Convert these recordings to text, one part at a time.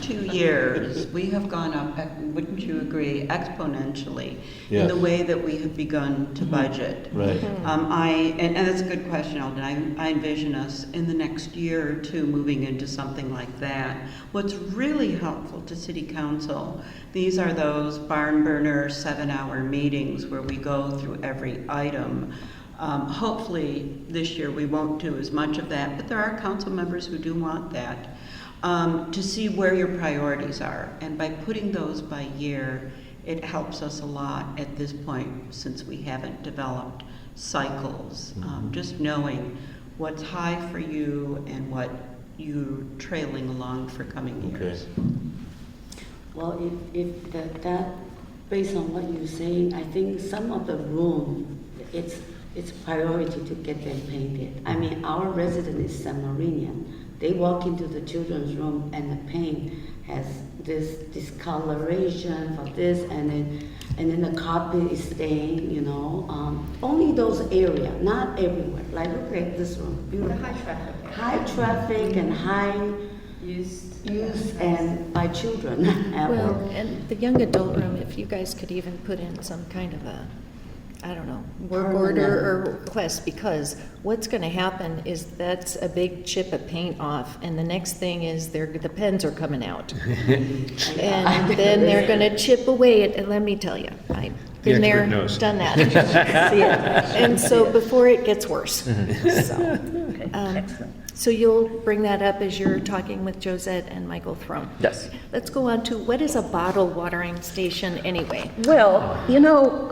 two years, we have gone up, ec- wouldn't you agree, exponentially in Yes. the way that we have begun to budget. Right. Um, I, and, and that's a good question, Alden. I, I envision us in the next year or two moving into something like that. What's really helpful to city council, these are those barn burner seven-hour meetings where we go through every item. Um, hopefully, this year we won't do as much of that, but there are council members who do want that. Um, to see where your priorities are, and by putting those by year, it helps us a lot at this point since we haven't developed cycles. Um, just knowing what's high for you and what you're trailing along for coming Okay. years. Well, if, if that, that, based on what you're saying, I think some of the room, it's, it's priority to get them painted. I mean, our resident is San Marinian. They walk into the children's room and the paint has this discoloration for this and then, and then the carpet is stained, you know. Um, only those area, not everywhere. Like, look at this room, The beautiful. high traffic. High traffic and high Used. used and by children. Well, and the young adult room, if you guys could even put in some kind of a, I don't know, work order or request, because what's gonna happen is that's a big chip of paint off, and the next thing is they're, the pens are coming out. And then they're gonna chip away at, and let me tell you, I've been The there, expert knows. done that. See it. And so before it gets worse, so. um, So you'll bring that up as you're talking with Josette and Michael Thrum. Yes. Let's go on to, what is a bottle watering station anyway? Well, you know,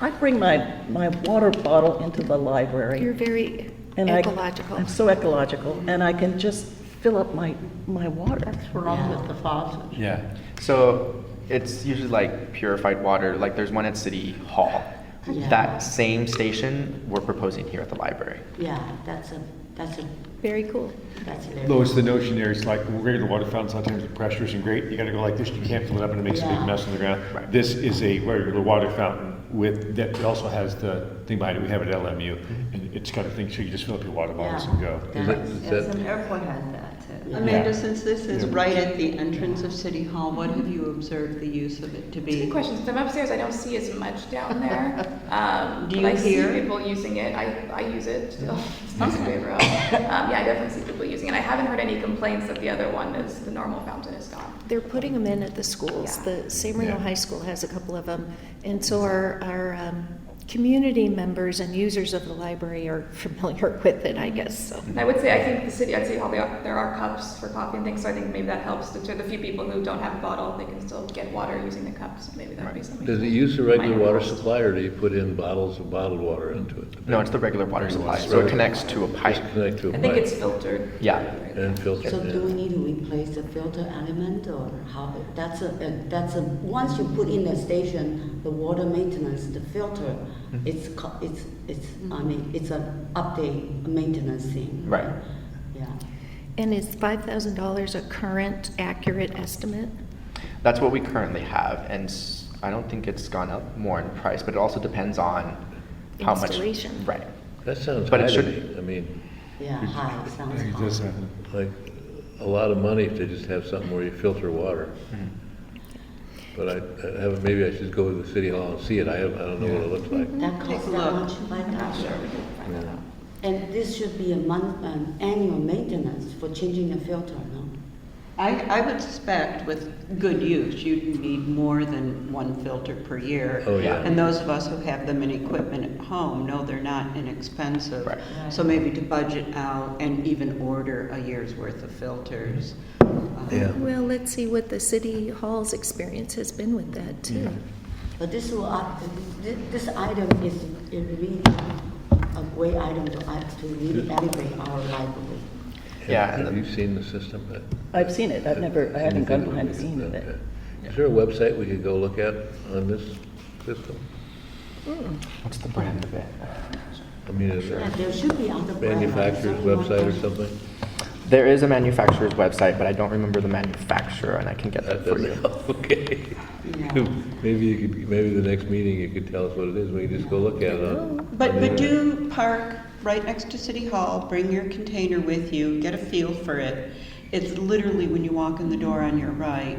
I bring my, my water bottle into the You're library. very and I- ecological. I'm so ecological, and I can just fill up my, my water. What's wrong with the faucet? Yeah. So it's usually like purified water. Like there's one at City Hall. Yeah. That same station we're proposing here at the library. Yeah, that's a, that's a, Very cool. that's a. Though it's the notion there, it's like when we're getting the water fountain, sometimes the pressure isn't great. You gotta go like this, you can't fill it up and it makes a big Yeah. mess on the ground. Right. This is a regular water fountain with, that also has the thing behind it. We have it at LMU. And it's got a thing, so you just fill up your water bottles and go. Mm-hmm. Yeah, that's- Some airport has that too. Amanda, since this is right at the entrance of City Hall, what have you observed the use of it to It's a good be? question, 'cause I'm upstairs, I don't see as much down there. Um, Do but you I see hear? Mm-hmm. people using it, I, I use it, still. it's not my favorite. Um, yeah, I definitely see people using it, I haven't heard any complaints that the other one is, the normal fountain is gone. They're putting them in at the schools. Yeah. The San Marino Yeah. High School has a couple of them. And so our, our um, community members and users of the library are familiar with it, I guess, so. And I would say, I think the city, I'd say how they are, there are cups for coffee and things, so I think maybe that helps to, to the few people who don't have a bottle, they can still get water using the cups, maybe that would be something. Does it use the regular Minor water cost. supply, or do you put in bottles of bottled water into it? No, it's the regular water supply. So it connects to a Just pipe. connect to a I think it's pipe filtered. Yeah. and filter So do we it. need to replace the filter element or how, that's a, a- that's a, once you put in the station, the water maintenance, the filter, Mm-hmm. it's, co- it's, it's, Mm-hmm. I mean, it's a update, maintenance thing. Right. Yeah. And is $5,000 a current accurate estimate? That's what we currently have, and s- I don't think it's gone up more in price, but it also depends on how much. Installation. Right. That sounds But high it to should- me. I mean, Yeah, high, sounds It does high. happen. like, a lot of money if they just have something where you filter water. Hmm. But I, I haven't, maybe I should go to the city hall and see it. I have, I don't know what it looks like. That costs Take a that look. much, my I'm not gosh. sure, we can find that out. And this should be a month, an annual maintenance for changing the filter, no? I, I would suspect with good use, you'd need more than one filter per year. Oh, yeah. And those of us who have them in equipment at home know they're not inexpensive. Right. So maybe to budget out and even order a year's worth of filters. um, Yeah. Well, let's see what the city hall's experience has been with that, too. But this will, up- thi- this item is a really a great item to, add- to really elevate our library. Yeah, and Have the- you seen the system? I've seen it, I've never, I haven't gone behind the scenes of Okay. it. Is there a website we could go look at on this system? What's the brand of it? I mean, is there And there should be other brands. manufacturer's website or something? There is a manufacturer's website, but I don't remember the manufacturer, and I can get that That for you. doesn't help, okay. Yeah. Maybe you could, maybe the next meeting you could tell us what it is, we can just go look at it. on- But, but on the- do park right next to City Hall, bring your container with you, get a feel for it, It's literally when you walk in the door on your right,